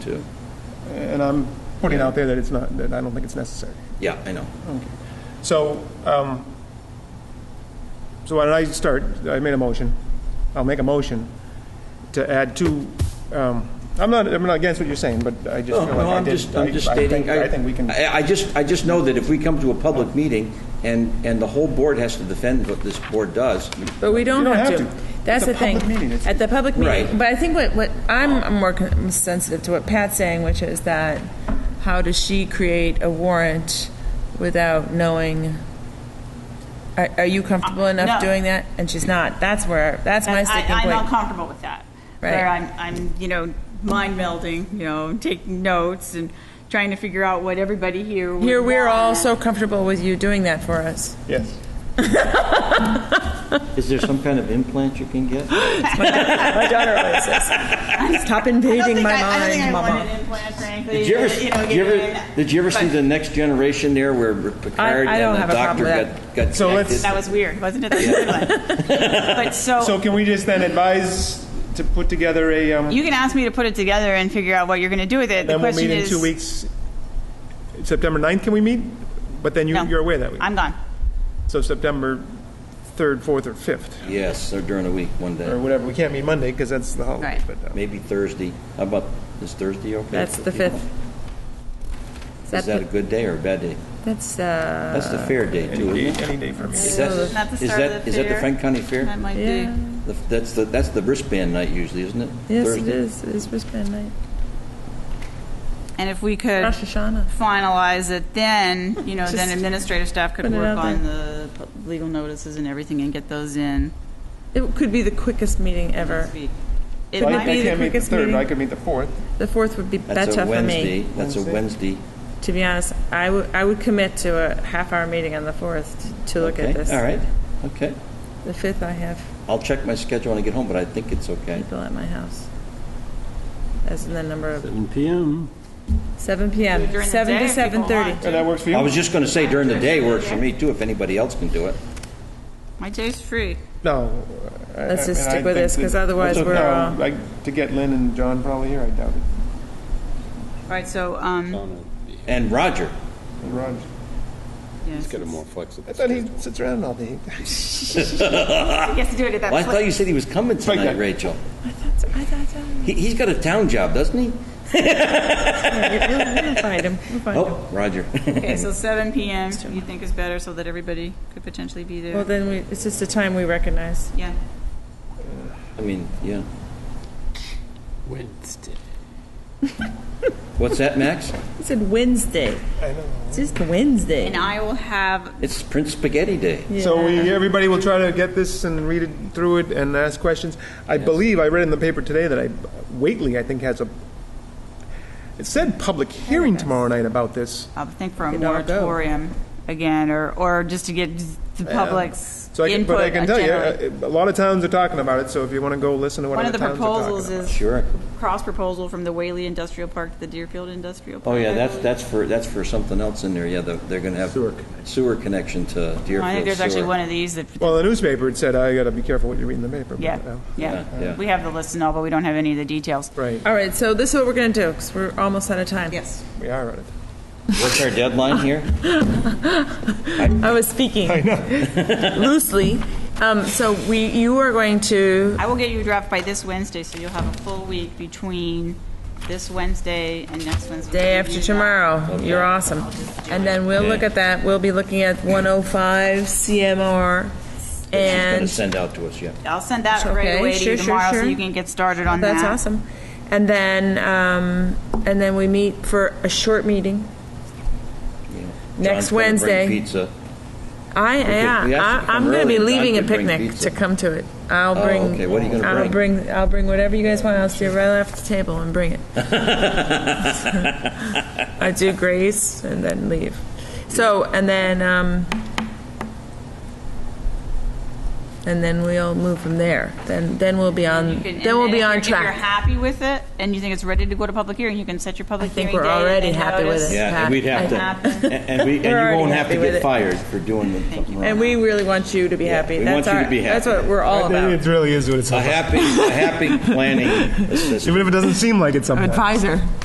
too. And I'm putting out there that it's not, that I don't think it's necessary. Yeah, I know. Hmm. So, um, so why don't I start, I made a motion, I'll make a motion to add two, um, I'm not, I'm not against what you're saying, but I just No, Oh, feel like no, I I'm did. just, I'm just I- I stating, think- I think we can, I, I just, I just know that if we come to a public meeting and, and the whole board has to defend what this board does, But we don't You don't have have to. to. That's the It's a thing. public meeting. It's- At the public Right. meeting, but I think what, what, I'm more con- sensitive to what Pat's saying, which is that how does she create a warrant without knowing? Are, are you comfortable Uh, no. enough doing that? And she's not. That's where, that's my I- sticking I'm point. not comfortable with that. Right. Where I'm, I'm, you know, mind melding, you know, taking notes and trying to figure out what everybody here would Here, we're all want. so comfortable with you doing that for us. yes. Is there some kind of implant you can get? My daughter always says, stop I don't invading think my I- I don't think I mind, want mama. an implant, frankly. Did you ever, but, know, did you getting ever, that- did you ever see but the next generation there where Picard I don't and have the a problem doctor got, with got So let's- connected? That was weird, wasn't it? That's a good one. But So so, can we just then advise to put together a, um, you can ask me to put it together and figure out what you're going to do with it. The then we'll question meet in is. two weeks, September 9th, can we meet? But then you, No. you're away that week. I'm gone. So September 3rd, 4th, or 5th, Yes, or during the week, one or day, whatever, we can't meet Monday because that's the holiday, Right. but. um, maybe Thursday. How about, is Thursday okay? That's for the people? fifth. Is that a good day or a bad day? That's, uh, That's the fair day too, Any isn't day it? any day for me. Is Isn't that that, the is start of that, the is that the fair? Frank County Fair? That might be. yeah. The- That's the, that's the wristband night usually, isn't it? Yes, it Thursday? is. It is wristband night. And if we could. Rosh Hashanah. finalize it, then, you know, then Just administrative staff could put it work out on the legal notices and everything and get those in It could be the quickest meeting ever. this week. It So I Wouldn't I might it be the can't be, meet the quickest 3rd, but I meeting? could meet the 4th. The fourth would be That's better a for Wednesday, me, that's a Wednesday. to be honest. I would, I would commit to a half-hour meeting on the fourth to look Okay, at this. All right, okay. The fifth, I have I'll check my schedule when I get home, but I think it's okay. people at my house. As in the number of, 7 PM. seven PM, During the seven day, to if people seven-thirty. want. And that works for you? I was just going to say during the day works for me too, if anybody else can do it. my day's free. No. I- Let's I just mean, I stick think with this, 'cause that- otherwise No, we're, uh, Like, to get Lynn and John probably here, I doubt it. All right, so, um, And Roger, Raj. yes. Get a more flexible. I thought he sits around all day. he has to do it at that well, I point. thought you said he was coming tonight, Frank, I- Rachel. I thought, so. He, he's got a town job, doesn't he? we'll, we'll find him, we'll find him. Oh, Roger. Okay, so 7 PM you think is better so that everybody could potentially be Well, there? then we, it's just a time we recognize. Yeah. I mean, yeah. Wednesday. What's that, Max? It said Wednesday. I know. It's just Wednesday. And I will have, It's Prince Spaghetti Day. So Yeah. we, everybody will try to get this and read it through it and ask questions. I believe, I read in the paper today that I, Waitley, I think, has a, it said public hearing tomorrow night about this. I think for a Could all go. moratorium again, or, or just to get the public's So I can, but I input can tell you, generally. uh, a lot of towns are talking about it, so if you want to go listen to what One of other the towns are talking proposals about. is Sure. cross proposal from the Whaley Industrial Park to the Deerfield Industrial Park. Oh yeah, I that's believe. that's for that's for something else in there. Yeah, the, they're going to have sewer connection, to Deerfield. I think there's actually sewer. one of these that, Well, the newspaper, it said, I got to be careful what you read in the paper. but, yeah, uh, yeah, Yeah, yeah. We have the list and all, but we don't have any of the details. Right, All right, so this is what we're gonna do, because we're almost out of time. Yes. we are on it. What's our deadline here? I was speaking loosely. Um, so we, you are going to. I will get you a draft by this Wednesday, so you'll have a full week between this Wednesday and next Wednesday. Day after tomorrow, you're awesome. And then we'll look Okay. at that. We'll be looking at 105 CMR She's going to and send out to us. Yeah. I'll send that Okay, right away to sure, you sure, tomorrow, sure. so you can get started on that. that's awesome. And then um, and then we meet for a short meeting. John's gonna Next bring Wednesday. Pizza. I could- we yeah, actually I, come I'm going to early. be John leaving a could bring picnic pizza. Oh, to come to it. I'll bring. okay, what are you gonna I'll bring? bring? I'll bring whatever you guys want. I'll sit right off the table and bring it. I do grace and then leave. So and then um, and then we'll move from there. Then then we'll be on. You can- and then we'll be if on you're- If track. you're happy with it and you think it's ready to go to public hearing, you can set your I public hearing think date. we're already and happy with notice. it. Yeah, Pat. and we'd have I- to, Happen. and- and we, and you We're already won't have happy to with it. get fired for doing something wrong. And we really want you to be happy. we that's want you our, to be That's happy. what we're all about. It really is what it's A about. happy, a happy planning assistant. Even if it doesn't seem like it sometimes. Advisor.